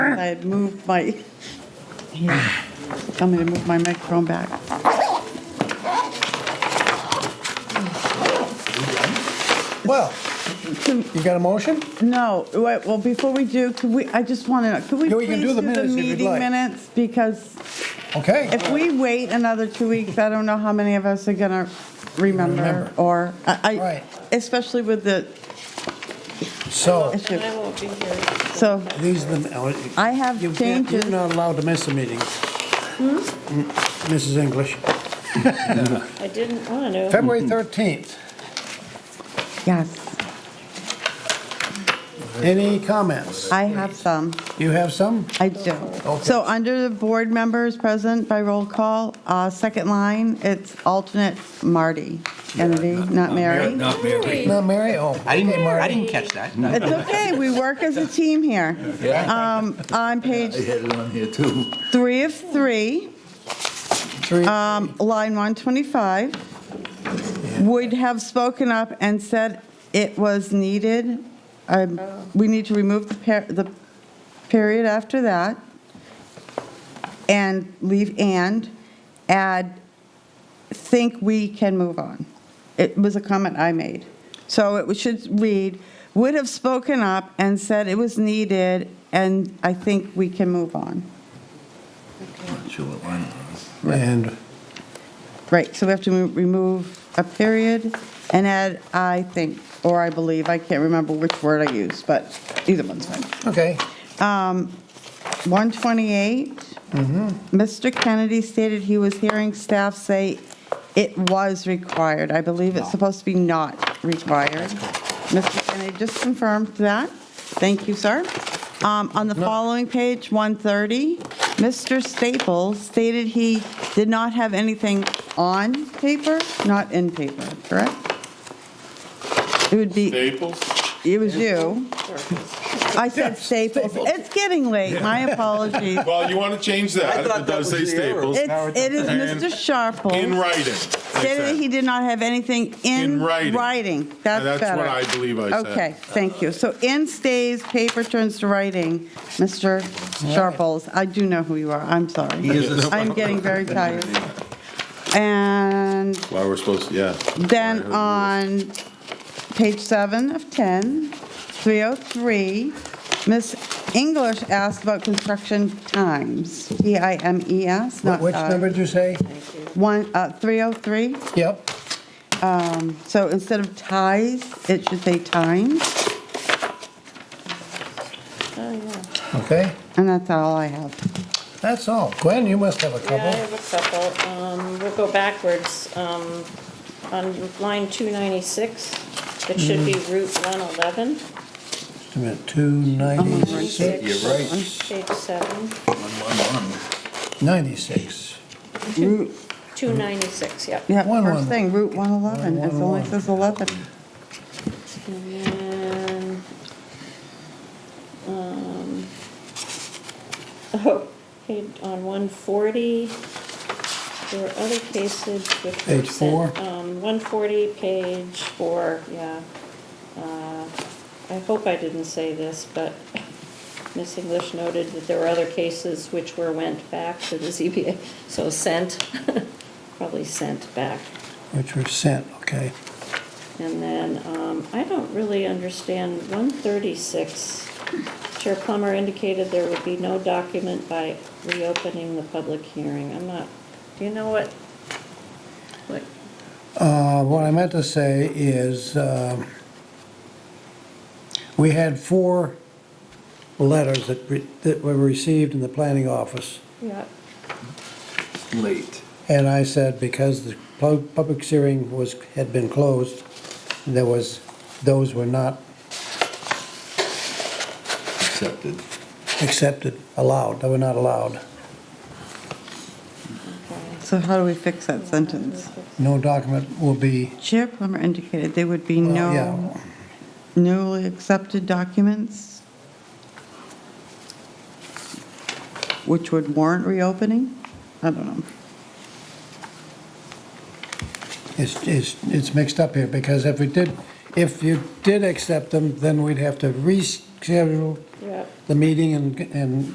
I had moved my, here, tell me to move my microphone back. Well, you got a motion? No, wait, well, before we do, could we, I just want to, could we Yeah, we can please do do the the minutes if you'd meeting like. minutes? Because Okay. if we wait another two weeks, I don't know how many of us are going to remember Remember. or, I, Right. I- especially with the So, issue. I won't be here. So these are the. oh, I have you can't- changes. Hmm? You're not allowed to miss a meeting. Mm, Mrs. English, I didn't want to. Hmm. February 13th, Yes, any comments? I have some. You have some? I do. Okay. So under the board members present by roll call, uh, second line, it's alternate Marty Kennedy, not Mary. Not Mary. Not Mary? Oh. I didn't, okay, I Marty. didn't catch that. It's okay, we work as a team here. Um, On I page had it on here too. three of three, Three. um, line 125, would have spoken up and said it was needed. Um, We need to remove the per- the period after that and leave "and," add think we can move on. It was a comment I made. So it should read, would have spoken up and said it was needed, and I think we can move on. Not sure what line it was. And Right, so we have to mo- remove a period and add I think, or I believe, I can't remember which word I used, but either one's fine. Okay, 128, Mr. Kennedy stated he was hearing staff say it was required. I believe it's supposed to be not required. Mr. Kennedy just confirmed that. Thank you, sir. Um, On the following page, 130, Mr. Staples stated he did not have anything on paper, not in paper, correct? It would be. Staples? It was you. I said Staples. It's getting late, my apologies. Well, you want to change that. It does say Staples. It's, it is And Mr. In Sharple. writing. I Stated that said. he did not have anything in In writing. writing. That's better. That's what I believe I said. Okay, thank you. So in stays, paper turns to writing, Mr. Sharples. I do know who you are, I'm sorry. I'm getting very tired. And Well, we're supposed, to yeah. Then Why are on page seven of 10, 303, Ms. English asked about construction times, T-I-M-E-S, wh- not. which uh, number did you say? One, uh, 303. Yep, So instead of ties, it should say times, Oh, yeah. okay, and that's all I have. that's all. Gwen, you must have a Yeah, I couple. have a couple. Um, We'll go backwards. Um, On line 296, it should be Route 111, Just a minute, 296, You're right. page 7, One, one, one. 96. Route, 296, yep. yeah, One, first one. thing, Route 111, it One, one, only one. says 11. And then, um, oh, hey, on 140, there were other cases which were Page sent- four. Um, 140, page four, yeah. Uh, I hope I didn't say this, but Miss English noted that there were other cases which were went back to the ZBA, so sent, probably sent back. Which were sent, okay. And then, um, I don't really understand 136. Chair Plummer indicated there would be no document by reopening the public hearing. I'm not, you know what? What? Uh, What I meant to say is, um, we had four letters that re- that were received in the planning office, yeah, Late. and I said because the pu- public hearing was, had been closed, there was, those were not Accepted. accepted, allowed, they were not allowed. okay. So how do we fix that sentence? No document will be, Chair Plummer indicated there would be Well, no yeah. newly accepted documents, which would warrant reopening? I don't know. it's, it's it's mixed up here, because if we did, if you did accept them, then we'd have to reschedule Yeah. the meeting and, and